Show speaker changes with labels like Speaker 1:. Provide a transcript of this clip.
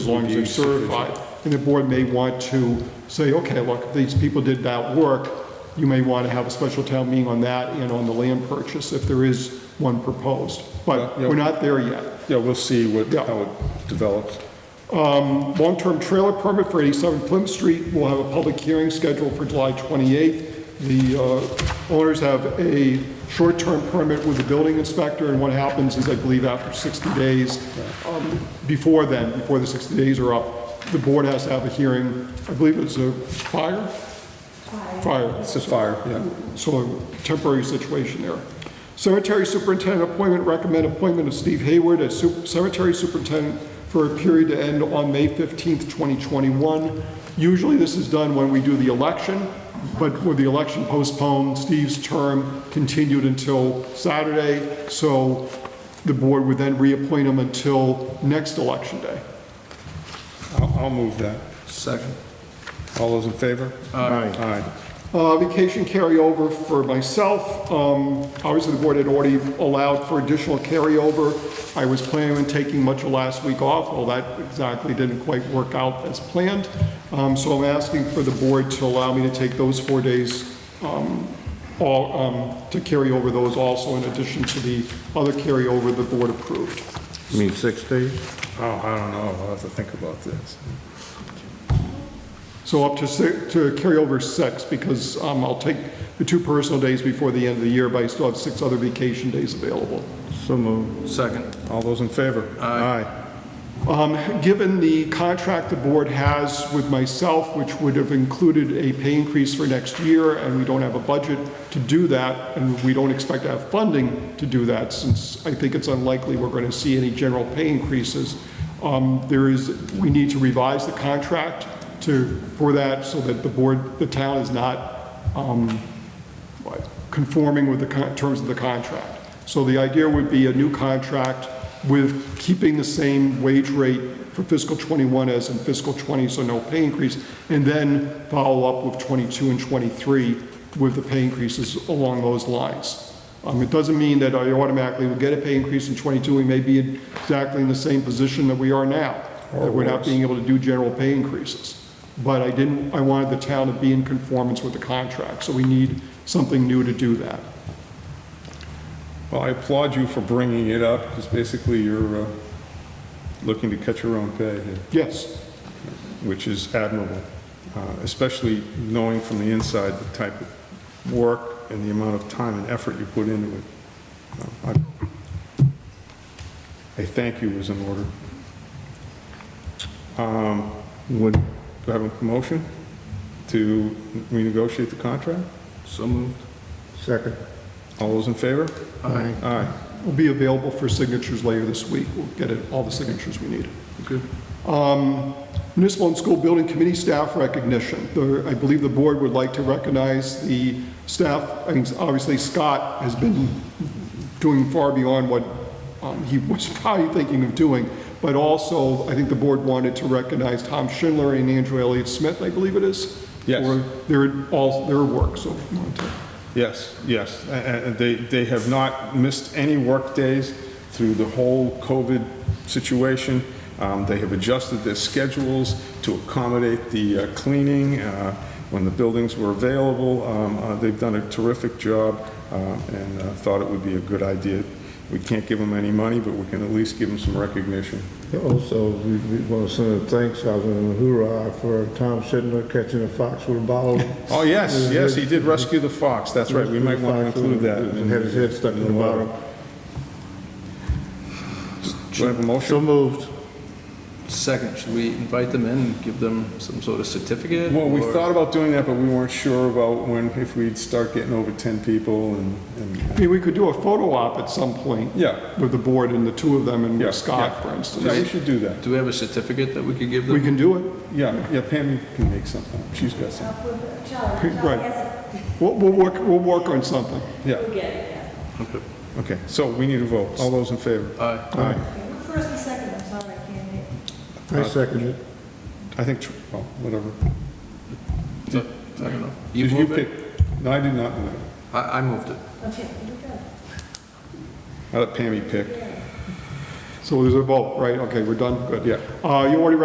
Speaker 1: as long as they're certified. And the board may want to say, okay, look, these people did that work, you may want to have a special town meeting on that and on the land purchase, if there is one proposed. But
Speaker 2: Yeah, yeah.
Speaker 1: we're not there yet.
Speaker 2: Yeah, we'll see what,
Speaker 1: Yeah.
Speaker 2: how it develops.
Speaker 1: Long-term trailer permit for 87 Plymouth Street, we'll have a public hearing scheduled for July 28th. The uh, owners have a short-term permit with the building inspector, and what happens is, I believe, after 60 days, um, before then, before the 60 days are up, the board has to have a hearing, I believe it's a fire? Fire.
Speaker 2: It's a fire, yeah.
Speaker 1: So a temporary situation there. Cemetery Superintendent appointment, recommend appointment of Steve Hayward as su- Cemetery Superintendent for a period to end on May 15th, 2021. Usually this is done when we do the election, but with the election postponed, Steve's term continued until Saturday, so the board would then reappoint him until next election day.
Speaker 2: I'll, I'll move that. Second. All those in favor? Aye.
Speaker 1: Uh, Vacation carryover for myself, um, obviously the board had already allowed for additional carryover. I was planning on taking much of last week off, well, that exactly didn't quite work out as planned. Um, So I'm asking for the board to allow me to take those four days, um, all, um, to carry over those also in addition to the other carryover the board approved.
Speaker 3: You mean six days?
Speaker 2: Oh, I don't know, I'll have to think about this.
Speaker 1: So up to six, to carry over six, because um, I'll take the two personal days before the end of the year, but I still have six other vacation days available.
Speaker 3: So moved.
Speaker 4: Second.
Speaker 2: All those in favor? Aye.
Speaker 1: Um, Given the contract the board has with myself, which would have included a pay increase for next year, and we don't have a budget to do that, and we don't expect to have funding to do that, since I think it's unlikely we're going to see any general pay increases, um, there is, we need to revise the contract to, for that, so that the board, the town is not um, conforming with the con- terms of the contract. So the idea would be a new contract with keeping the same wage rate for fiscal '21 as in fiscal '20, so no pay increase, and then follow up with '22 and '23 with the pay increases along those lines. Um, It doesn't mean that I automatically will get a pay increase in '22, we may be exactly in the same position that we are now, that we're not being able to do general pay increases but I didn't, I wanted the town to be in conformance with the contract, so we need something new to do that.
Speaker 2: Well, I applaud you for bringing it up, because basically you're uh, looking to cut your own pay here,
Speaker 1: Yes,
Speaker 2: which is admirable, uh, especially knowing from the inside the type of work and the amount of time and effort you put into it. Uh, I- A thank you is in order. Um,
Speaker 3: Would,
Speaker 2: Do I have a motion to renegotiate the contract?
Speaker 4: So moved.
Speaker 3: second.
Speaker 2: All those in favor?
Speaker 3: Aye.
Speaker 2: Aye.
Speaker 1: we'll be available for signatures later this week, we'll get it- all the signatures we need. Um,
Speaker 4: Good.
Speaker 1: Municipal and School Building Committee staff recognition. The- I believe the board would like to recognize the staff, I mean, obviously Scott has been doing far beyond what um, he was probably thinking of doing, but also, I think the board wanted to recognize Tom Schindler and Andrew Elliott Smith, I believe it is?
Speaker 2: Yes.
Speaker 1: For their, all, their work, so if you want to.
Speaker 2: Yes, yes. A- a- And they, they have not missed any work days through the whole COVID situation. Um, They have adjusted their schedules to accommodate the uh, cleaning uh, when the buildings were available. Um, uh, They've done a terrific job uh, and uh, thought it would be a good idea. We can't give them any money, but we can at least give them some recognition.
Speaker 3: Also, we, we want to send a thanks out and a hoorah for Tom Sidner catching a fox with a bottle.
Speaker 2: Oh, yes, yes, he did rescue the fox, that's right, we might want to include that.
Speaker 3: And had his head stuck in the bottle.
Speaker 2: Do I have a
Speaker 3: So
Speaker 2: motion?
Speaker 3: moved.
Speaker 4: Second, should we invite them in and give them some sort of certificate?
Speaker 2: Well, we
Speaker 4: or-
Speaker 2: thought about doing that, but we weren't sure about when, if we'd start getting over 10 people and, and,
Speaker 1: I mean, we could do a photo op at some point
Speaker 2: yeah,
Speaker 1: with the board and the two of them and
Speaker 2: Yeah,
Speaker 1: with Scott,
Speaker 2: yeah.
Speaker 1: for
Speaker 2: yeah, you
Speaker 1: instance.
Speaker 2: should do that.
Speaker 4: Do we have a certificate that we could give them?
Speaker 1: We can do it.
Speaker 2: Yeah, yeah, Pam can make something, she's got some,
Speaker 1: Right. We'll, we'll work, we'll work on something.
Speaker 2: yeah,
Speaker 4: Okay.
Speaker 2: okay, so we need a vote, all those in favor?
Speaker 4: Aye.
Speaker 2: Aye.
Speaker 5: First and second, I'm sorry, I can't hear.
Speaker 3: I second it.
Speaker 2: I think, tr- well, whatever.
Speaker 4: I don't know. You
Speaker 2: Did you
Speaker 4: moved
Speaker 2: pick?
Speaker 4: it?
Speaker 2: No, I did not, move it.
Speaker 4: I, I moved it.
Speaker 5: Okay, you go.
Speaker 2: I let Pammy pick,
Speaker 1: So there's a vote, right? Okay, we're done, good.
Speaker 2: yeah.
Speaker 1: Uh, you already